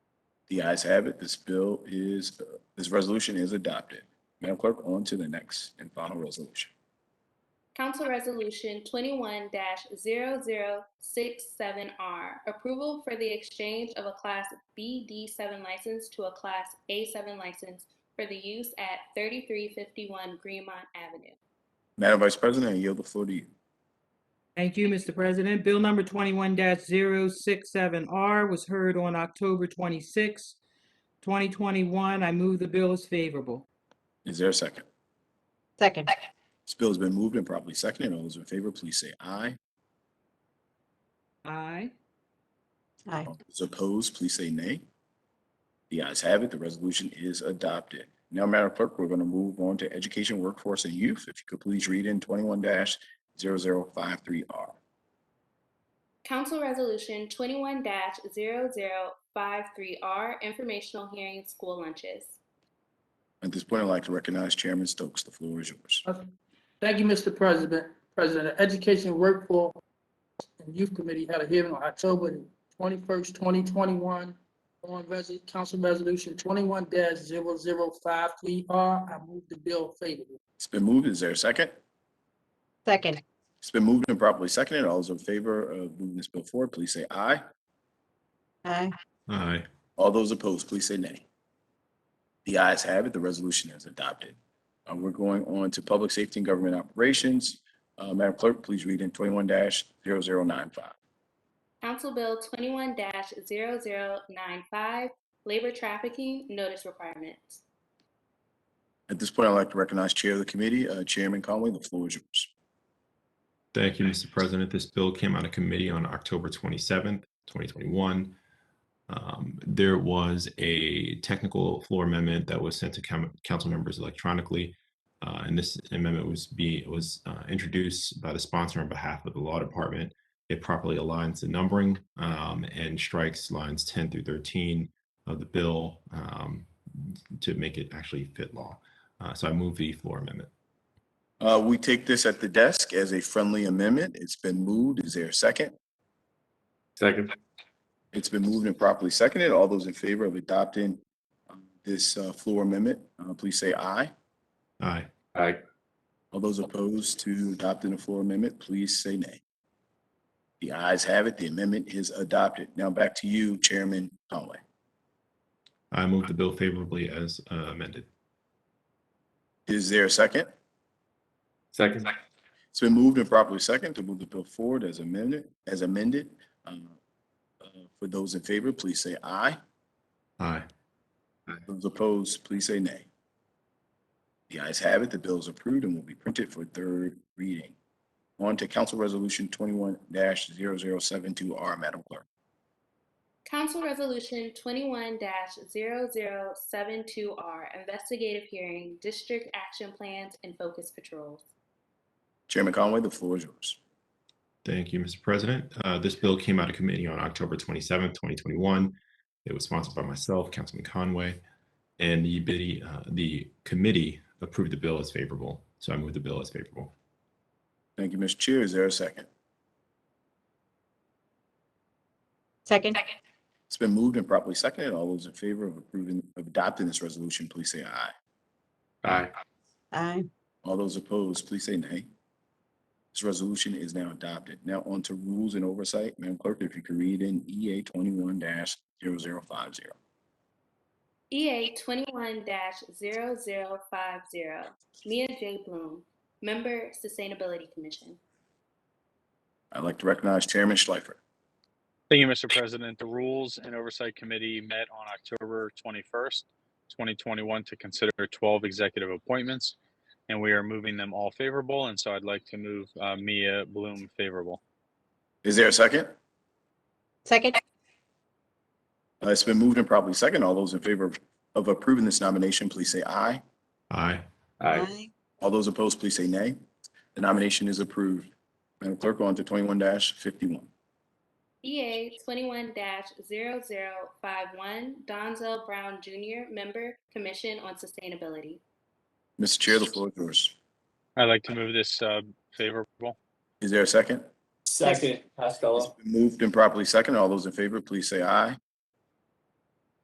The ayes have it. This bill is, uh, this resolution is adopted. Madam Clerk, on to the next and final resolution. Council Resolution 21-0067R, approval for the exchange of a Class BD7 license to a Class A7 license for the use at 3351 Greenmont Avenue. Madam Vice President, I yield the floor to you. Thank you, Mr. President. Bill number twenty-one 67 R was heard on October 26, twenty twenty-one. I move the bill is favorable. Is there a second? Second. This bill has been moved and properly seconded. All those in favor, please say aye. Aye. Aye. All those opposed, please say nay. The ayes have it. The resolution is adopted. Now, Madam Clerk, we're going to move on to Education, Workforce, and Youth. If you could please read in twenty-one 53 R. Council Resolution 21-0053R, informational hearing school lunches. At this point, I'd like to recognize Chairman Stokes. The floor is yours. Thank you, Mr. President. President, the Education Workforce and Youth Committee had a hearing on October twenty-first, twenty twenty-one on Res- Council Resolution twenty-one 53 R. I move the bill favorably. It's been moved. Is there a second? Second. It's been moved and properly seconded. All those in favor of moving this bill forward, please say aye. Aye. Aye. All those opposed, please say nay. The ayes have it. The resolution is adopted. Uh, We're going on to Public Safety and Government Operations. Uh, Madam Clerk, please read in twenty-one 95 Council Bill 21-0095, labor trafficking notice requirements. At this point, I'd like to recognize Chair of the Committee, uh, Chairman Conway. The floor is yours. Thank you, Mr. President. This bill came out of committee on October 27th, 2021. Um, There was a technical floor amendment that was sent to com- council members electronically. uh, And this amendment was be, was uh, introduced by the sponsor on behalf of the Law Department. It properly aligns the numbering um, and strikes lines 10 through 13 of the bill um, to make it actually fit law. Uh, So I move the floor amendment. Uh, We take this at the desk as a friendly amendment. It's been moved. Is there a second? Second. It's been moved and properly seconded. All those in favor of adopting um, this uh, floor amendment, uh, please say aye. Aye. Aye. All those opposed to adopting the floor amendment, please say nay. The ayes have it. The amendment is adopted. Now back to you, Chairman Conway. I move the bill favorably as uh, amended. Is there a second? Second. It's been moved and properly second to move the bill forward as amended, as amended. Um, uh, For those in favor, please say aye. Aye. Those opposed, please say nay. The ayes have it. The bill is approved and will be printed for third reading. On to Council Resolution twenty-one 72 R, Madam Clerk. Council Resolution 21-0072R, investigative hearing, district action plans, and focus patrols. Chairman Conway, the floor is yours. Thank you, Mr. President. Uh, This bill came out of committee on October 27th, 2021. It was sponsored by myself, Councilman Conway, and the biddy- uh, the committee approved the bill as favorable. So I move the bill as favorable. Thank you, Mr. Chair. Is there a second? Second. It's been moved and properly seconded. All those in favor of approving, of adopting this resolution, please say aye. Aye. Aye. All those opposed, please say nay. This resolution is now adopted. Now on to rules and oversight. Madam Clerk, if you could read in EA twenty-one 50 EA 21-0050, Mia J. Bloom, Member Sustainability Commission. I'd like to recognize Chairman Schleifer. Thank you, Mr. President. The Rules and Oversight Committee met on October 21st, 2021 to consider 12 executive appointments, and we are moving them all favorable, and so I'd like to move uh, Mia Bloom favorable. Is there a second? Second. Uh, It's been moved and properly seconded. All those in favor of approving this nomination, please say aye. Aye. Aye. All those opposed, please say nay. The nomination is approved. Madam Clerk, on to twenty-one fifty-one. EA 21-0051, Donzel Brown Jr., Member Commission on Sustainability. Mr. Chair, the floor is yours. I'd like to move this uh, favorable. Is there a second? Second, It's been Moved and properly seconded. All those in favor, please say aye.